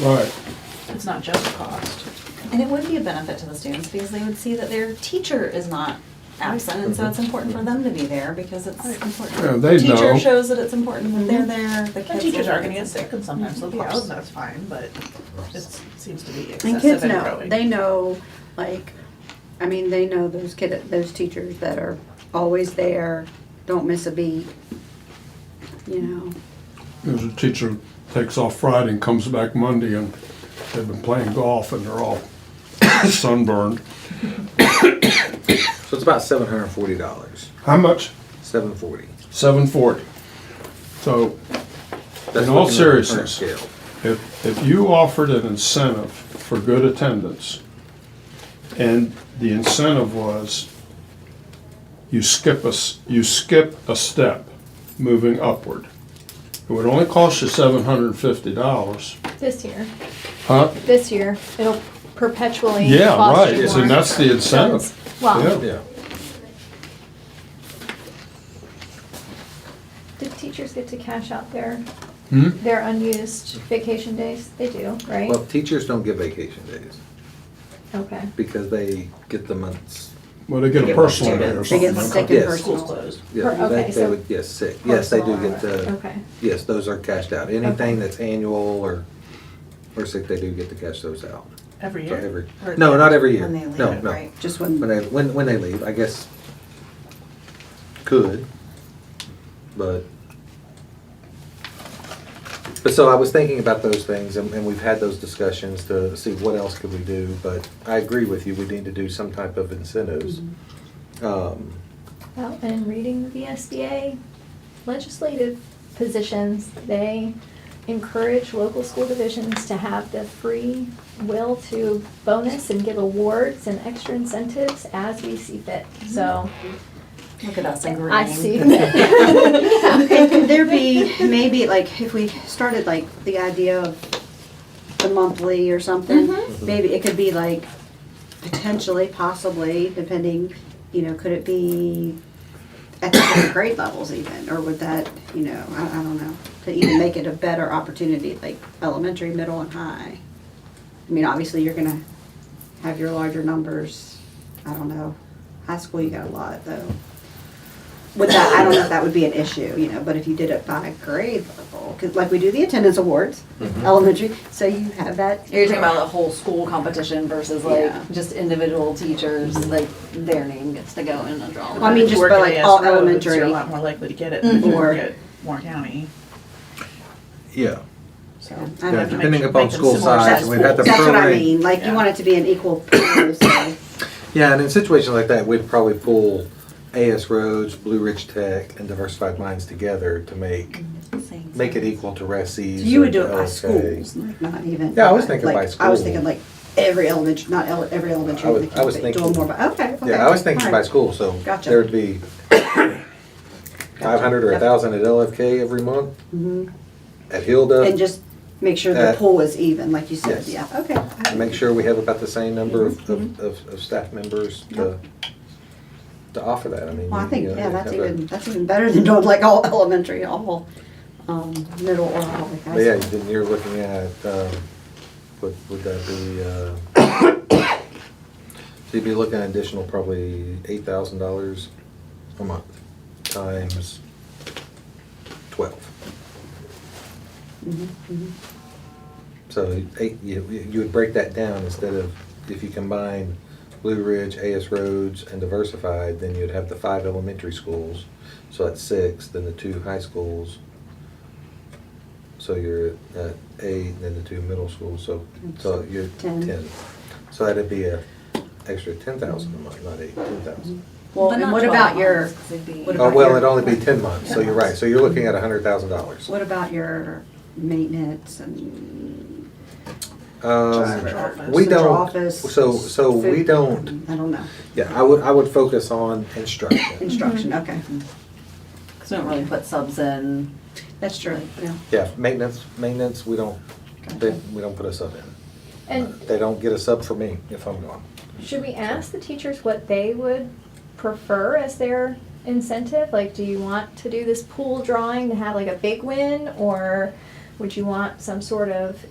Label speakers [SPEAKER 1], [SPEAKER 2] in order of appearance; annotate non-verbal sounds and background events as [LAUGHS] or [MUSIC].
[SPEAKER 1] Right.
[SPEAKER 2] It's not just cost.
[SPEAKER 3] And it would be a benefit to the students because they would see that their teacher is not absent, and so it's important for them to be there because it's
[SPEAKER 4] Oh,
[SPEAKER 3] important.
[SPEAKER 1] Yeah, they know.
[SPEAKER 3] Teacher shows that it's important when they're there, the
[SPEAKER 2] And
[SPEAKER 3] kids.
[SPEAKER 2] teachers
[SPEAKER 3] will-
[SPEAKER 2] are gonna get sick and sometimes they'll
[SPEAKER 3] Of course.
[SPEAKER 2] fall and that's fine, but it seems to be
[SPEAKER 5] And kids
[SPEAKER 2] excessive and
[SPEAKER 5] know,
[SPEAKER 2] growing.
[SPEAKER 5] they know, like, I mean, they know those kid, those teachers that are always there, don't miss a beat. You know,
[SPEAKER 1] There's a teacher takes off Friday and comes back Monday and they've been playing golf and they're all [COUGHS] sunburned.
[SPEAKER 6] So it's about seven hundred and forty dollars.
[SPEAKER 1] How much?
[SPEAKER 6] Seven forty.
[SPEAKER 1] Seven forty. So In all seriousness. If, if you offered an incentive for good attendance, and the incentive was you skip a, s- you skip a step moving upward, it would only cost you seven hundred and fifty dollars.
[SPEAKER 7] This year,
[SPEAKER 1] Huh?
[SPEAKER 7] this year, it'll perpetually
[SPEAKER 1] Yeah,
[SPEAKER 7] cost you
[SPEAKER 1] right,
[SPEAKER 7] more.
[SPEAKER 1] and that's the incentive.
[SPEAKER 7] Well,
[SPEAKER 1] Yeah.
[SPEAKER 6] Yeah.
[SPEAKER 7] do teachers get to cash out their,
[SPEAKER 1] Hmm?
[SPEAKER 7] their unused vacation days? They do, right?
[SPEAKER 6] Well, teachers don't get vacation days
[SPEAKER 7] Okay.
[SPEAKER 6] because they get the months.
[SPEAKER 1] Well, they get a
[SPEAKER 2] They get what
[SPEAKER 1] personal day or
[SPEAKER 2] students-
[SPEAKER 5] they get
[SPEAKER 1] something.
[SPEAKER 5] sick and
[SPEAKER 6] Yes.
[SPEAKER 2] School's
[SPEAKER 5] personal.
[SPEAKER 2] closed.
[SPEAKER 6] Yeah,
[SPEAKER 7] Per-
[SPEAKER 6] they-
[SPEAKER 7] okay,
[SPEAKER 6] they
[SPEAKER 7] so
[SPEAKER 6] would- Yes, sick. Yes, they do
[SPEAKER 2] personal
[SPEAKER 6] get the.
[SPEAKER 7] Okay.
[SPEAKER 6] Yes, those are cashed out. Anything that's annual or or sick, they do get to cash those out.
[SPEAKER 2] Every
[SPEAKER 6] So
[SPEAKER 2] year?
[SPEAKER 6] every
[SPEAKER 2] Or-
[SPEAKER 6] no, not every year.
[SPEAKER 3] When they leave,
[SPEAKER 6] no, no.
[SPEAKER 3] right?
[SPEAKER 5] Just
[SPEAKER 6] When
[SPEAKER 5] when,
[SPEAKER 6] they when when they leave, I guess could, but but so I was thinking about those things, and, and we've had those discussions to see what else could we do. But I agree with you. We need to do some type of incentives.
[SPEAKER 5] Mm-hmm.
[SPEAKER 6] Um,
[SPEAKER 7] Well, and reading the SBA legislative positions, they encourage local school divisions to have the free will to bonus and give awards and extra incentives as we see fit, so
[SPEAKER 3] Look at us in green. [LAUGHS]
[SPEAKER 7] I see. that.
[SPEAKER 5] could there be, maybe, like, if we started, like, the idea of the monthly or something,
[SPEAKER 7] Mhm.
[SPEAKER 5] maybe it could be like, potentially, possibly, depending, you know, could it be at the different grade levels even, or would that, you know, I, I don't know, to even make it a better opportunity, like elementary, middle, and high? I mean, obviously, you're gonna have your larger numbers, I don't know, high school, you got a lot, though. With that, I don't know if that would be an issue, you know, but if you did it by grade level, 'cause like we do the attendance awards,
[SPEAKER 6] Mm-hmm.
[SPEAKER 5] elementary, so you have that.
[SPEAKER 4] You're talking about a whole school competition versus like
[SPEAKER 5] Yeah.
[SPEAKER 4] just individual teachers, like their name gets to go in a draw.
[SPEAKER 5] I mean, just
[SPEAKER 2] Work
[SPEAKER 5] by,
[SPEAKER 2] in
[SPEAKER 5] like,
[SPEAKER 2] AS
[SPEAKER 5] all
[SPEAKER 2] roads, You're a
[SPEAKER 5] elementary. Mm-hmm.
[SPEAKER 2] lot more likely to get it than you
[SPEAKER 5] Or-
[SPEAKER 2] would get Warren County,
[SPEAKER 6] yeah.
[SPEAKER 2] so.
[SPEAKER 5] I
[SPEAKER 6] Yeah,
[SPEAKER 5] don't know.
[SPEAKER 6] depending
[SPEAKER 2] Make
[SPEAKER 6] upon
[SPEAKER 2] them
[SPEAKER 6] school
[SPEAKER 2] similar
[SPEAKER 6] size,
[SPEAKER 2] size
[SPEAKER 6] we've had to
[SPEAKER 5] That's what I
[SPEAKER 6] prorate-
[SPEAKER 5] mean, like, you
[SPEAKER 2] Yeah.
[SPEAKER 5] want it to be an equal pool, so.
[SPEAKER 6] Yeah, and in situations like that, we'd probably pull AS Roads, Blue Ridge Tech, and Diversified Minds together to make
[SPEAKER 3] Same.
[SPEAKER 6] make it equal to RESI's.
[SPEAKER 5] Mm-hmm. So you would
[SPEAKER 6] or
[SPEAKER 5] do it
[SPEAKER 6] to
[SPEAKER 5] by
[SPEAKER 6] LSK.
[SPEAKER 5] schools, like, not even.
[SPEAKER 6] Yeah, I was thinking
[SPEAKER 5] like,
[SPEAKER 6] by
[SPEAKER 5] I was
[SPEAKER 6] school.
[SPEAKER 5] thinking like every elementary, not ele- every
[SPEAKER 6] I
[SPEAKER 5] elementary,
[SPEAKER 6] was-
[SPEAKER 5] like,
[SPEAKER 6] I was
[SPEAKER 5] but do
[SPEAKER 6] thinking-
[SPEAKER 5] them more by, okay, okay.
[SPEAKER 6] Yeah, I was thinking by
[SPEAKER 5] alright.
[SPEAKER 6] school, so
[SPEAKER 5] Gotcha.
[SPEAKER 6] there would be five hundred or a thousand at LFK every month,
[SPEAKER 5] Mhm.
[SPEAKER 6] at Hilda.
[SPEAKER 5] And just make sure the
[SPEAKER 6] Uh,
[SPEAKER 5] pool is even, like you said, yeah,
[SPEAKER 6] yes.
[SPEAKER 5] okay.
[SPEAKER 6] and make sure we have about the same number of,
[SPEAKER 5] Mm-hmm.
[SPEAKER 6] of, of, of staff members to to offer that. I mean,
[SPEAKER 5] Well, I
[SPEAKER 6] you
[SPEAKER 5] think,
[SPEAKER 6] know,
[SPEAKER 5] yeah, that's
[SPEAKER 6] have a-
[SPEAKER 5] even, that's even better than doing like all [LAUGHS] elementary, all, um, middle or all like
[SPEAKER 6] But yeah,
[SPEAKER 5] high school.
[SPEAKER 6] then you're looking at, um, would, would that be, uh, [COUGHS] so you'd be looking at additional probably eight thousand dollars a month times twelve.
[SPEAKER 5] Mhm, mhm.
[SPEAKER 6] So eight, you, you would break that down instead of, if you combine Blue Ridge, AS Roads, and Diversified, then you'd have the five elementary schools. So that's six, then the two high schools. So you're at eight, then the two middle schools, so, so you're
[SPEAKER 5] Ten.
[SPEAKER 6] ten. So that'd be a extra ten thousand a month, not eight, ten thousand.
[SPEAKER 5] Well,
[SPEAKER 3] But
[SPEAKER 5] and
[SPEAKER 3] not
[SPEAKER 5] what
[SPEAKER 3] 12
[SPEAKER 5] about your,
[SPEAKER 3] months, 'cause it'd be-
[SPEAKER 5] what
[SPEAKER 6] Oh,
[SPEAKER 5] about
[SPEAKER 6] well,
[SPEAKER 5] your-
[SPEAKER 6] it'd only be ten months, so you're right, so you're looking at a hundred thousand dollars.
[SPEAKER 5] what about your maintenance and
[SPEAKER 2] Drivers.
[SPEAKER 6] Um, We
[SPEAKER 5] central
[SPEAKER 6] don't,
[SPEAKER 5] office?
[SPEAKER 6] so, so we
[SPEAKER 5] food?
[SPEAKER 6] don't,
[SPEAKER 5] I don't know,
[SPEAKER 6] Yeah, I would, I would focus on instruction.
[SPEAKER 5] instruction, okay,
[SPEAKER 3] Mm-hmm.
[SPEAKER 4] Cause we don't really put subs in.
[SPEAKER 5] that's true, yeah.
[SPEAKER 6] Yeah, maintenance, maintenance, we don't, they, we don't put a sub in.
[SPEAKER 1] Mm-hmm.
[SPEAKER 7] And
[SPEAKER 6] They don't get a sub for me if I'm gone.
[SPEAKER 7] Should we ask the teachers what they would prefer as their incentive? Like, do you want to do this pool drawing to have like a big win, or would you want some sort of